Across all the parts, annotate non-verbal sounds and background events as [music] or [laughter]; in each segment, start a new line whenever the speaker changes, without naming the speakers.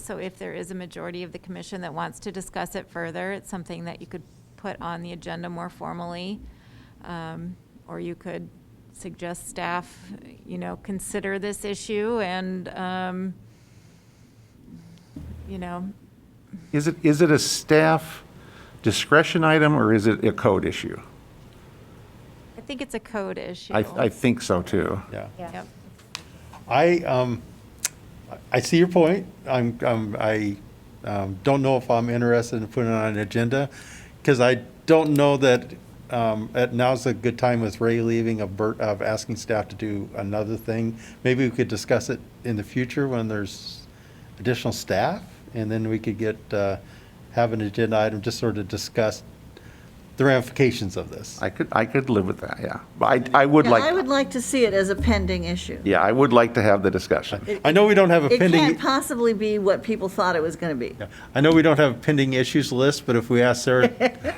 So if there is a majority of the commission that wants to discuss it further, it's something that you could put on the agenda more formally. Um, Or you could suggest staff, you know, consider this issue and, um, you know,
Is it, is it a staff discretion item or is it a code issue?
I think it's a code issue.
I, I think so too.
Yeah.
Yep.
I, um, I see your point. I'm, I'm, I, um, don't know if I'm interested in putting it on an agenda, because I don't know that, um, at now's a good time with Ray leaving of Bert, of asking staff to do another thing. Maybe we could discuss it in the future when there's additional staff, and then we could get, uh, have an agenda item, just sort of discuss the ramifications of this.
I could, I could live with that, yeah. But I, I would
Yeah, I would
like,
like to see it as a pending issue.
yeah, I would like to have the discussion.
I know we don't have a
It
pending.
can't possibly be what people thought it was going to be.
Yeah. I know we don't have a pending issues list, but if we ask Sarah,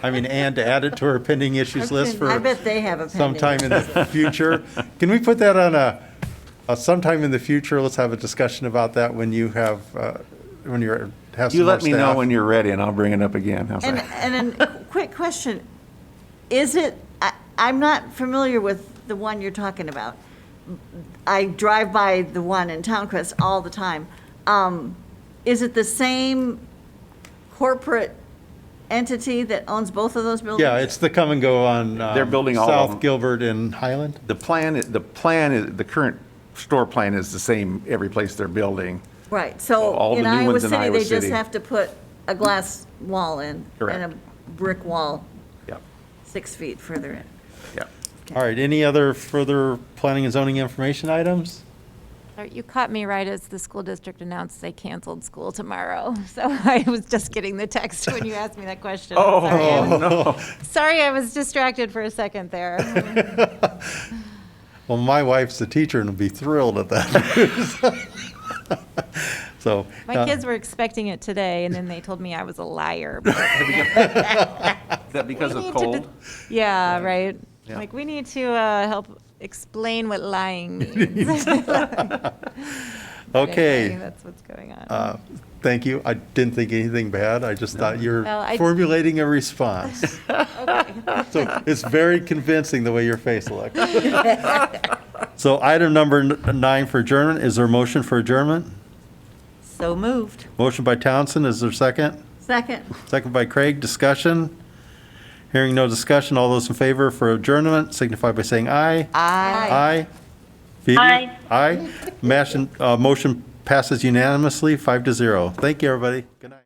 I mean, Ann to add it to her pending issues list
I
for
bet they have a pending.
sometime in the future, can we put that on a, a sometime in the future, let's have a discussion about that when you have, uh, when you're, have some
You
more
let me know when
staff.
you're ready and I'll bring it up again. How's
And,
that?
and a quick question. Is it, I, I'm not familiar with the one you're talking about. I drive by the one in Townquest all the time. Um, Is it the same corporate entity that owns both of those buildings?
Yeah, it's the come and go on. um,
They're building all of them.
South Gilbert and Highland.
The plan, the plan, is the current store plan is the same every place they're building.
Right,
All
so in
the new
Iowa
ones in
City,
Iowa
they just
City.
have to put a glass wall in and
Correct.
a brick wall
Yep,
six feet further in.
yep.
All right, any other further planning and zoning information items?
Uh, You caught me right as the school district announced they canceled school tomorrow. [laughs] So I was just getting the text when you asked me that question. Oh, Sorry, I was distracted for a second there.
Well, my wife's a teacher and will be thrilled at that. [laughs] So.
My
uh,
kids were expecting it today, and then they told me I was a liar.
Is that because
We
of
need to
cold?
dis- [laughs] Yeah, right.
Yeah.
Like, we need to uh, help explain what lying means.
Okay.
[laughs] That's what's going on.
Uh, Thank you. I didn't think anything bad. I just thought you're
Well, I-
formulating
[laughs]
a response. So it's very convincing the way your face
[laughs]
looked. So item number n- nine for adjournment. Is there a motion for adjournment?
So moved.
Motion by Townsend. Is there a second?
Second.
Second by Craig. Discussion? Hearing no discussion. All those in favor for adjournment signify by saying aye.
Aye.
Aye. Phoebe?
Aye.
Aye. Motion- uh, Motion passes unanimously, five to zero. Thank you, everybody. Good night.